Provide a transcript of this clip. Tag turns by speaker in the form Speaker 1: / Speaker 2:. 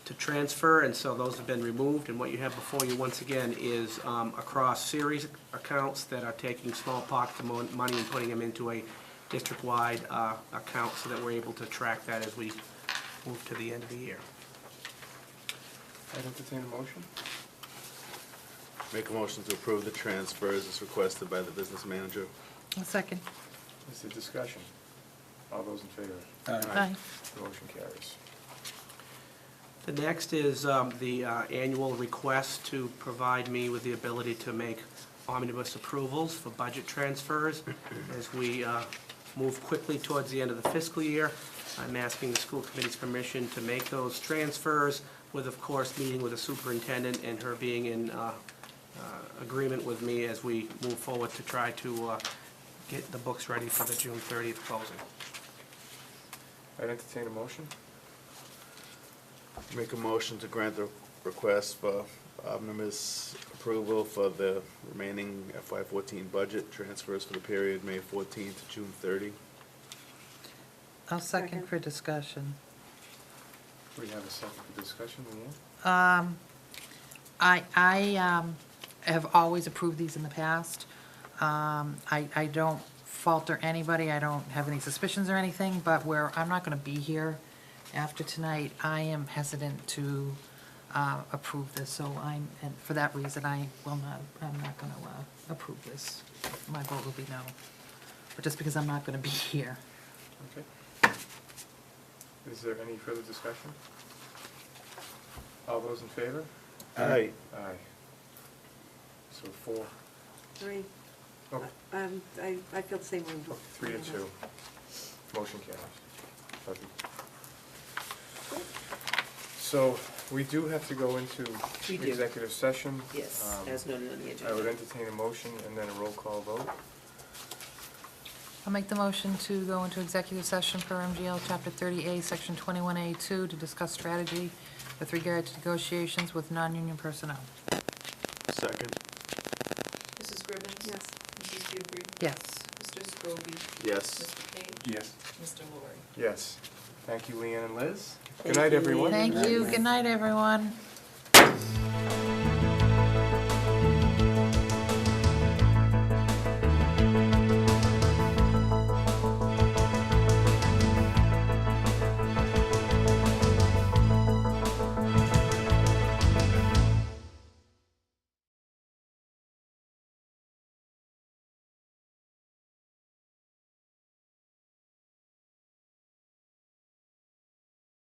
Speaker 1: to transfer, and so those have been removed. And what you have before you, once again, is um, across series accounts that are taking small pockets of mon- money and putting them into a district-wide uh, account so that we're able to track that as we move to the end of the year.
Speaker 2: I'd entertain a motion.
Speaker 3: Make a motion to approve the transfers as requested by the business manager.
Speaker 4: I'll second.
Speaker 2: Is there discussion? All those in favor?
Speaker 4: Aye.
Speaker 2: Motion carries.
Speaker 1: The next is um, the uh, annual request to provide me with the ability to make omnibus approvals for budget transfers. As we uh, move quickly towards the end of the fiscal year, I'm asking the school committee's permission to make those transfers with, of course, meeting with the superintendent and her being in uh, uh, agreement with me as we move forward to try to uh, get the books ready for the June 30th closing.
Speaker 2: I'd entertain a motion.
Speaker 3: Make a motion to grant the request for omnibus approval for the remaining FY fourteen budget transfers for the period May fourteen to June thirty.
Speaker 4: I'll second
Speaker 5: Second.
Speaker 4: for discussion.
Speaker 2: We have a second for discussion, Leanne?
Speaker 4: Um, I, I um, have always approved these in the past. Um, I, I don't falter anybody, I don't have any suspicions or anything, but where I'm not going to be here after tonight, I am hesitant to uh, approve this, so I'm, and for that reason, I will not, I'm not going to approve this. My vote will be no, but just because I'm not going to be here.
Speaker 2: Okay. Is there any further discussion? All those in favor?
Speaker 3: Aye.
Speaker 2: Aye. So four,
Speaker 5: Three,
Speaker 2: oh,
Speaker 5: um, I, I feel the same way.
Speaker 2: three to two. Motion carries. Perfect. So we do have to go into
Speaker 6: We do.
Speaker 2: executive session.
Speaker 6: Yes,
Speaker 2: Um,
Speaker 6: as noted on the
Speaker 2: I would
Speaker 6: agenda.
Speaker 2: entertain a motion and then a roll call vote.
Speaker 4: I'll make the motion to go into executive session for MGL Chapter 30A, Section 21A2, to discuss strategy with regard to negotiations with non-union personnel.
Speaker 3: Second.
Speaker 6: Mrs. Gribbins?
Speaker 5: Yes.
Speaker 6: Mrs. Dupree?
Speaker 4: Yes.
Speaker 6: Mr. Scobie?
Speaker 3: Yes.
Speaker 6: Mr. Page?
Speaker 2: Yes.
Speaker 6: Mr. Laurie?
Speaker 2: Yes. Thank you, Leanne and Liz. Good
Speaker 6: Thank
Speaker 2: night,
Speaker 6: you,
Speaker 2: everyone.
Speaker 6: Leanne.
Speaker 4: Thank you. Good night, everyone.